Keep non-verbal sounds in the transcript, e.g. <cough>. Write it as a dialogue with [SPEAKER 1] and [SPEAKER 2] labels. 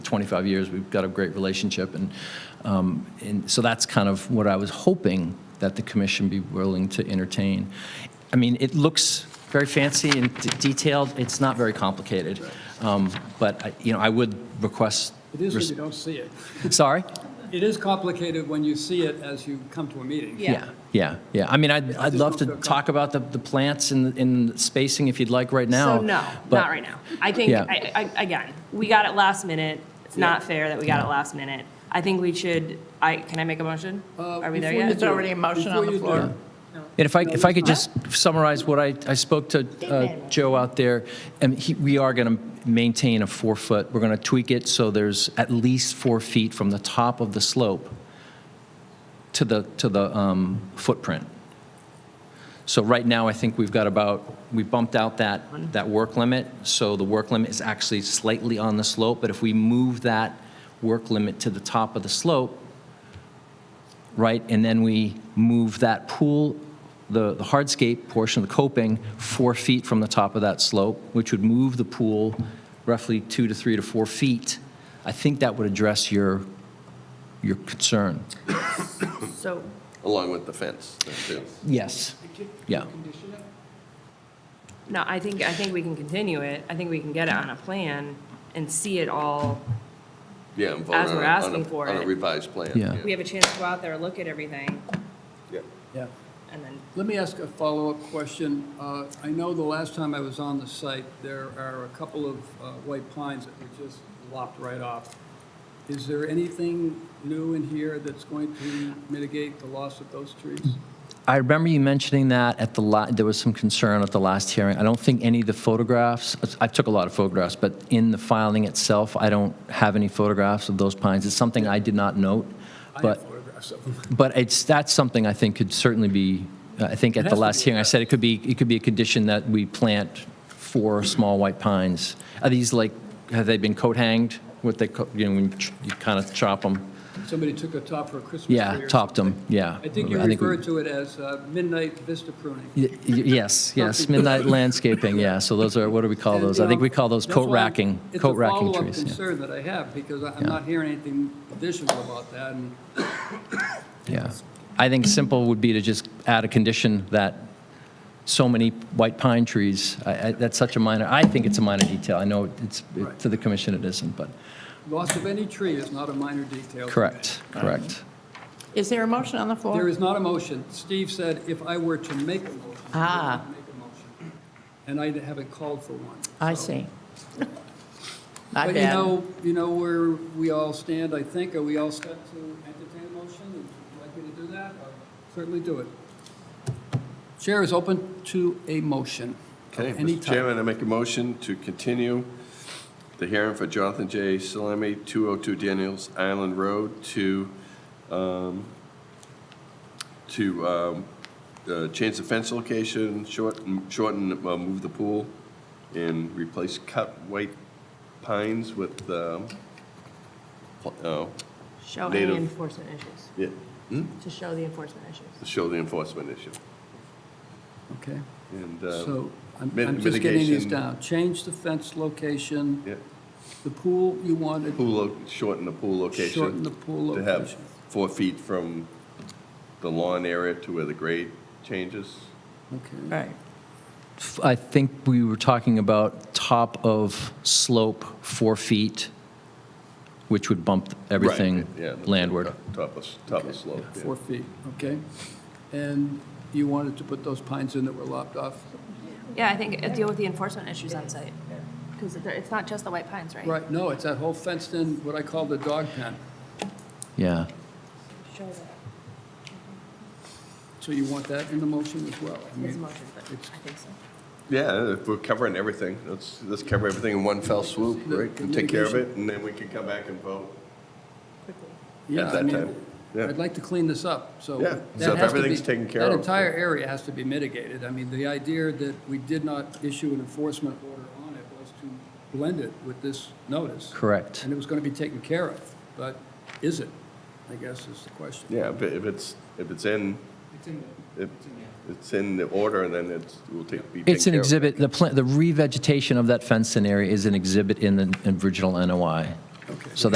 [SPEAKER 1] 25 years. We've got a great relationship, and, um, and so that's kind of what I was hoping that the commission be willing to entertain. I mean, it looks very fancy and d- detailed. It's not very complicated, um, but I, you know, I would request.
[SPEAKER 2] It is when you don't see it.
[SPEAKER 1] Sorry.
[SPEAKER 2] It is complicated when you see it as you come to a meeting.
[SPEAKER 3] Yeah.
[SPEAKER 1] Yeah, yeah, yeah. I mean, I'd, I'd
[SPEAKER 2] just
[SPEAKER 1] love
[SPEAKER 2] don't
[SPEAKER 1] to
[SPEAKER 2] feel com-
[SPEAKER 1] talk about the, the plants and, and spacing if you'd like right now.
[SPEAKER 3] So no,
[SPEAKER 1] but-
[SPEAKER 3] not right now. I think,
[SPEAKER 1] Yeah.
[SPEAKER 3] I, I, again, we got it last minute. It's not fair that we got it last minute. I think we should, I, can I make a motion?
[SPEAKER 2] Uh,
[SPEAKER 3] Are we there
[SPEAKER 2] before you
[SPEAKER 3] yet?
[SPEAKER 4] It's already
[SPEAKER 2] do-
[SPEAKER 4] a motion on
[SPEAKER 2] before
[SPEAKER 4] the
[SPEAKER 2] you do-
[SPEAKER 4] floor.
[SPEAKER 1] And if I, if I could just summarize what I, I spoke to uh, Joe out there, and he, we are going to maintain a four-foot, we're going to tweak it so there's at least four feet from the top of the slope to the, to the um, footprint. So right now, I think we've got about, we bumped out that, that work limit, so the work limit is actually slightly on the slope, but if we move that work limit to the top of the slope, right? And then we move that pool, the the hardscape portion of the coping, four feet from the top of that slope, which would move the pool roughly two to three to four feet. I think that would address your, your concern.
[SPEAKER 4] So,
[SPEAKER 5] Along with the fence, then, too.
[SPEAKER 1] Yes. Yeah.
[SPEAKER 3] No, I think, I think we can continue it. I think we can get it on a plan and see it all.
[SPEAKER 5] Yeah, and vote
[SPEAKER 3] As
[SPEAKER 5] on
[SPEAKER 3] we're
[SPEAKER 5] a- on
[SPEAKER 3] asking
[SPEAKER 5] a-
[SPEAKER 3] for
[SPEAKER 5] On
[SPEAKER 3] it.
[SPEAKER 5] a revised plan.
[SPEAKER 1] Yeah.
[SPEAKER 3] We have a chance to go out there, look at everything,
[SPEAKER 5] Yeah.
[SPEAKER 2] Yeah.
[SPEAKER 3] and then,
[SPEAKER 2] Let me ask a follow-up question. Uh, I know the last time I was on the site, there are a couple of uh, white pines that were just lopped right off. Is there anything new in here that's going to mitigate the loss of those trees?
[SPEAKER 1] I remember you mentioning that at the, la- there was some concern at the last hearing. I don't think any of the photographs, I took a lot of photographs, but in the filing itself, I don't have any photographs of those pines. It's something I did not note,
[SPEAKER 2] I
[SPEAKER 1] but.
[SPEAKER 2] have photographs of them.
[SPEAKER 1] But it's, that's something I think could certainly be, I think at
[SPEAKER 2] It
[SPEAKER 1] the
[SPEAKER 2] has to
[SPEAKER 1] last
[SPEAKER 2] be
[SPEAKER 1] hearing, I said it could be, it could be a condition that we plant four small white pines. Are these like, have they been coat hanged? What they, co- you know, when you ch- you kind of chop them?
[SPEAKER 2] Somebody took a top for a Christmas tree.
[SPEAKER 1] Yeah,
[SPEAKER 2] or
[SPEAKER 1] topped them, yeah.
[SPEAKER 2] something. I think you
[SPEAKER 1] we-
[SPEAKER 2] referred to it as uh, midnight vista pruning.
[SPEAKER 1] Y- y- Yes, yes,
[SPEAKER 2] Something.
[SPEAKER 1] midnight landscaping, yeah. So those are, what do we call
[SPEAKER 2] And,
[SPEAKER 1] those?
[SPEAKER 2] you
[SPEAKER 1] I think
[SPEAKER 2] know,
[SPEAKER 1] we call those
[SPEAKER 2] that's
[SPEAKER 1] coat
[SPEAKER 2] why I'm-
[SPEAKER 1] racking, coat racking
[SPEAKER 2] It's a follow-up
[SPEAKER 1] trees. yeah.
[SPEAKER 2] concern that I have, because I- I'm
[SPEAKER 1] Yeah.
[SPEAKER 2] not hearing anything additional about that, and
[SPEAKER 1] Yeah. I think simple would be to just add a condition that so many white pine trees, I, I, that's such a minor, I think it's a minor detail. I know it's, it- to the commission it isn't, but,
[SPEAKER 2] loss of any tree is not a minor detail.
[SPEAKER 1] correct, correct.
[SPEAKER 4] is there a motion on the
[SPEAKER 2] There
[SPEAKER 4] floor?
[SPEAKER 2] is not a motion. Steve said if I were to make a motion, I
[SPEAKER 4] Ah.
[SPEAKER 2] would make a motion, and I haven't called for one.
[SPEAKER 4] I
[SPEAKER 2] so. <laughs>
[SPEAKER 4] see. My
[SPEAKER 2] But you
[SPEAKER 4] bad.
[SPEAKER 2] know, you know where we all stand, I think, are we all set to entertain a motion? Would you like me to do that? I'll Certainly do it. Chair is open to a motion of
[SPEAKER 5] Okay,
[SPEAKER 2] any
[SPEAKER 5] Mr.
[SPEAKER 2] type.
[SPEAKER 5] Chairman, I make a motion to continue the hearing for Jonathan J. Salemi, 202 Daniels Island Road, to, um, to um, uh, change the fence location, shorten, shorten, uh, move the pool, and replace cut white pines with, um, pl- oh,
[SPEAKER 3] show any
[SPEAKER 5] Native.
[SPEAKER 3] enforcement issues,
[SPEAKER 5] yeah,
[SPEAKER 3] to show the enforcement issues.
[SPEAKER 5] to show the enforcement issue.
[SPEAKER 2] Okay,
[SPEAKER 5] And, uh,
[SPEAKER 2] so I'm
[SPEAKER 5] mit-
[SPEAKER 2] I'm just getting these
[SPEAKER 5] mitigation.
[SPEAKER 2] down. Change the fence location,
[SPEAKER 5] yeah,
[SPEAKER 2] the pool you wanted,
[SPEAKER 5] pool, lo- shorten the pool location.
[SPEAKER 2] shorten the pool
[SPEAKER 5] to have
[SPEAKER 2] location.
[SPEAKER 5] four feet from the lawn area to where the grade changes.
[SPEAKER 2] Okay,
[SPEAKER 4] Right.
[SPEAKER 1] F- I think we were talking about top of slope, four feet, which would bump everything
[SPEAKER 5] Yeah, the
[SPEAKER 1] landward.
[SPEAKER 5] top- Top of, s- top of slope, yeah.
[SPEAKER 2] Four feet, okay? And you wanted to put those pines in that were lopped off?
[SPEAKER 3] Yeah, I think, uh, deal with the enforcement issues on site, because it's not just the white pines, right?
[SPEAKER 2] Right, no, it's that whole fenced-in, what I call the dog pen.
[SPEAKER 1] Yeah.
[SPEAKER 3] Show that,
[SPEAKER 2] So you want that in the motion as well? I
[SPEAKER 3] it's a
[SPEAKER 2] mean,
[SPEAKER 3] motion, but I think so.
[SPEAKER 5] Yeah, if we're covering everything, let's, let's cover everything in one fell swoop,
[SPEAKER 2] The-
[SPEAKER 5] right?
[SPEAKER 2] the
[SPEAKER 5] And take care of it,
[SPEAKER 2] mitigation.
[SPEAKER 5] and then we can come back and vote
[SPEAKER 3] Quickly.
[SPEAKER 2] Yeah,
[SPEAKER 5] at
[SPEAKER 2] I
[SPEAKER 5] that
[SPEAKER 2] mean,
[SPEAKER 5] time. Yeah,
[SPEAKER 2] I'd like to clean this up, so.
[SPEAKER 5] Yeah,
[SPEAKER 2] that
[SPEAKER 5] so if
[SPEAKER 2] has to be-
[SPEAKER 5] everything's taken care
[SPEAKER 2] That
[SPEAKER 5] of.
[SPEAKER 2] entire area has to be mitigated. I mean, the idea that we did not issue an enforcement order on it was to blend it with this notice.
[SPEAKER 1] Correct.
[SPEAKER 2] And it was going to be taken care of, but is it, I guess is the question.
[SPEAKER 5] yeah, if it- if it's, if it's in, if it's in the order, then it's, we'll take, be taken care of.
[SPEAKER 1] It's an exhibit, the plant, the revegetation of that fenced-in area is an exhibit in the original NOI. So